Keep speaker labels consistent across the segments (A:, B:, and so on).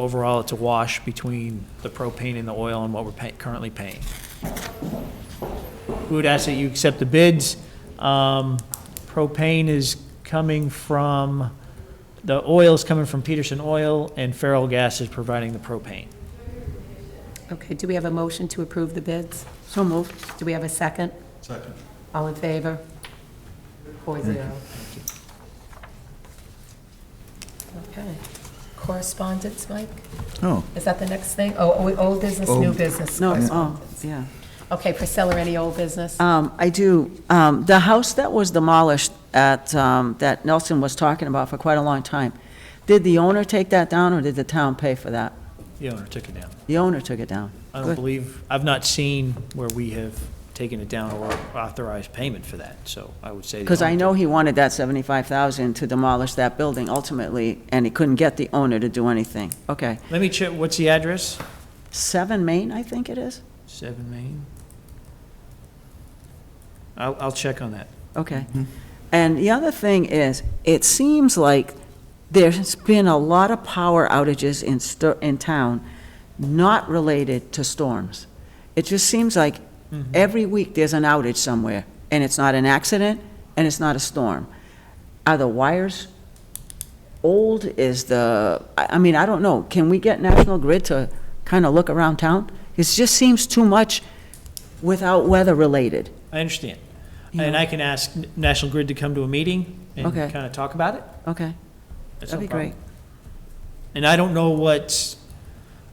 A: Overall, it's a wash between the propane and the oil and what we're pay- currently paying. We would ask that you accept the bids. Um, Propane is coming from, the oil is coming from Peterson Oil, and Feral Gas is providing the propane.
B: Okay, do we have a motion to approve the bids? So moved. Do we have a second?
C: Second.
B: All in favor? Four zero. Okay. Correspondence, Mike?
D: Oh,
B: Is that the next thing? Oh, o- old business, new
D: Old-
B: business?
E: No, oh,
B: correspondence.
E: yeah.
B: Okay, Priscilla, any old business?
E: Um, I do, um, the house that was demolished at, um, that Nelson was talking about for quite a long time, did the owner take that down, or did the town pay for that?
A: The owner took it down.
E: The owner took it down.
A: I don't
E: Good.
A: believe, I've not seen where we have taken it down or authorized payment for that, so I would say. the
E: Because I
A: owner
E: know he wanted that 75,000 to demolish that building ultimately, and he couldn't get the owner to do anything. Okay.
A: took- Let me check, what's the address?
E: 7 Main, I think it is?
A: Seven Main? I'll, I'll check on that.
E: Okay. And the other thing is, it seems like there's been a lot of power outages in, sto- in town not related to storms. It just seems like every week there's an outage somewhere, and it's not an accident, and it's not a storm. Are the wires old? Is the, I, I mean, I don't know. Can we get National Grid to kind of look around town? It just seems too much without weather-related.
A: I understand.
E: Yeah.
A: And I can ask N- National Grid to come to a meeting and
E: Okay.
A: kind of talk about it.
E: Okay,
A: That's
E: that'd
A: no
E: be great.
A: problem. And I don't know what,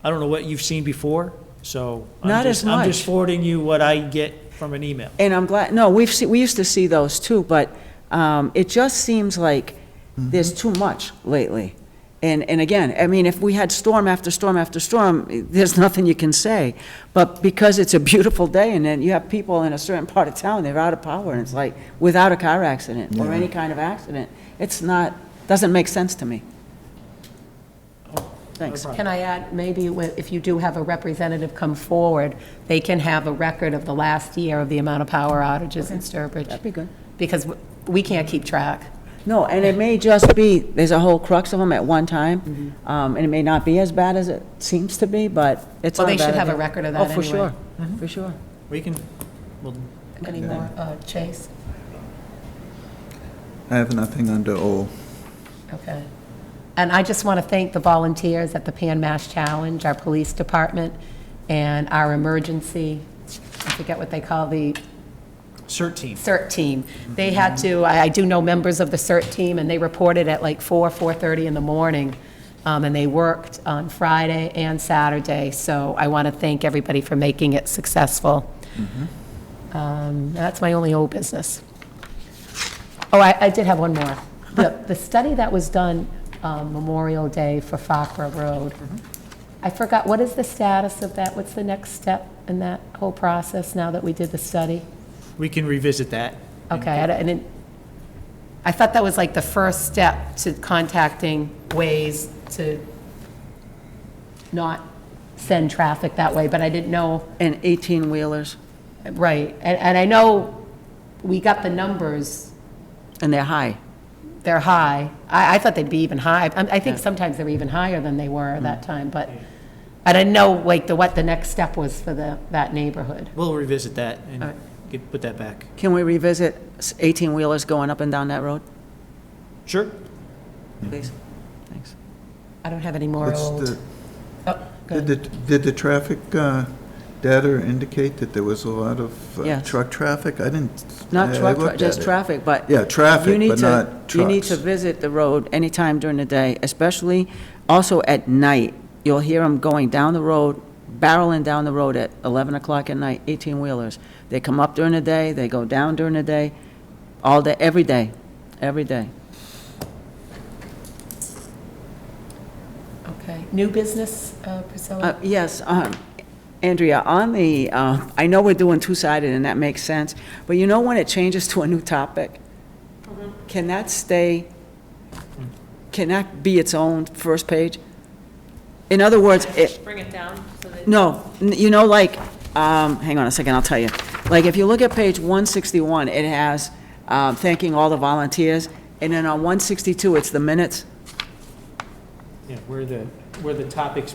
A: I don't know what you've seen before, so. I'm
E: Not
A: just-
E: as
A: I'm just
E: much.
A: forwarding you what I get from an email.
E: And I'm glad, no, we've, se- we used to see those too, but um, it just seems like there's too much lately. And, and again, I mean, if we had storm after storm after storm, eh, there's nothing you can say. But because it's a beautiful day and then you have people in a certain part of town, they're out of power and it's like, without a car accident or any kind of accident, it's not, doesn't make sense to me. Thanks.
A: problem.
B: Can I add, maybe wh- if you do have a representative come forward, they can have a record of the last year of the amount of power outages in Sturbridge?
E: That'd be good.
B: Because w- we can't keep track.
E: No, and it may just be, there's a whole crux of them at one time,
B: Mm-hmm.
E: um, and it may not be as bad as it seems to be, but it's
B: Well,
E: not
B: they should
E: bad
B: have a
E: either.
B: record of
E: Oh,
B: that
E: for
B: anyway.
E: sure, for sure.
A: We can, well,
B: Any more, uh, Chase?
D: I have nothing under O.
B: Okay. And I just want to thank the volunteers at the Pan Mash Challenge, our police department, and our emergency, I forget what they call the
A: CERT team.
B: CERT team. They had to, I I do know members of the CERT team, and they reported at like 4, 4:30 in the morning, Um, and they worked on Friday and Saturday, so I want to thank everybody for making it successful. Um, That's my only old business. Oh, I I did have one more. The the study that was done um, Memorial Day for Fakra Road, I forgot, what is the status of that? What's the next step in that whole process now that we did the study?
A: We can revisit that.
B: Okay, I don't- I didn't, I thought that was like the first step to contacting ways to not send traffic that way, but I didn't know,
E: And 18-wheelers,
B: right. And, and I know we got the numbers,
E: and they're high.
B: they're high. I, I thought they'd be even high. I I think sometimes they're even higher than they were that time, but I didn't know like the, what the next step was for the, that neighborhood.
A: We'll revisit that
B: All
A: and
B: right.
A: get, put that back.
E: Can we revisit s- 18-wheelers going up and down that road,
A: Sure.
B: Mm-hmm.
E: please? Thanks.
B: I don't have any more
D: What's
B: old.
D: the-
B: Oh, go
D: Did
B: ahead.
D: the, did the traffic uh, data indicate that there was a lot of uh,
E: Yes.
D: truck traffic? I didn't.
E: Not
D: I- I
E: truck, tra-
D: looked
E: just
D: at it.
E: traffic, but.
D: Yeah, traffic,
E: you need
D: but
E: to-
D: not
E: You need to
D: trucks.
E: visit the road anytime during the day, especially also at night. You'll hear them going down the road, barreling down the road at 11 o'clock at night, 18-wheelers. They come up during the day, they go down during the day, all day, every day, every day.
B: Okay. New business, uh, Priscilla?
E: Uh, Yes, um, Andrea, on the, uh, I know we're doing two-sided, and that makes sense, but you know when it changes to a new topic?
F: Mm-hmm.
E: Can that stay, can that be its own first page? In other words, it,
F: Bring it down so that.
E: no, n- you know, like, um, hang on a second, I'll tell you. Like, if you look at page 161, it has um, thanking all the volunteers, and then on 162, it's the minutes.
A: Yeah, where the, where the topics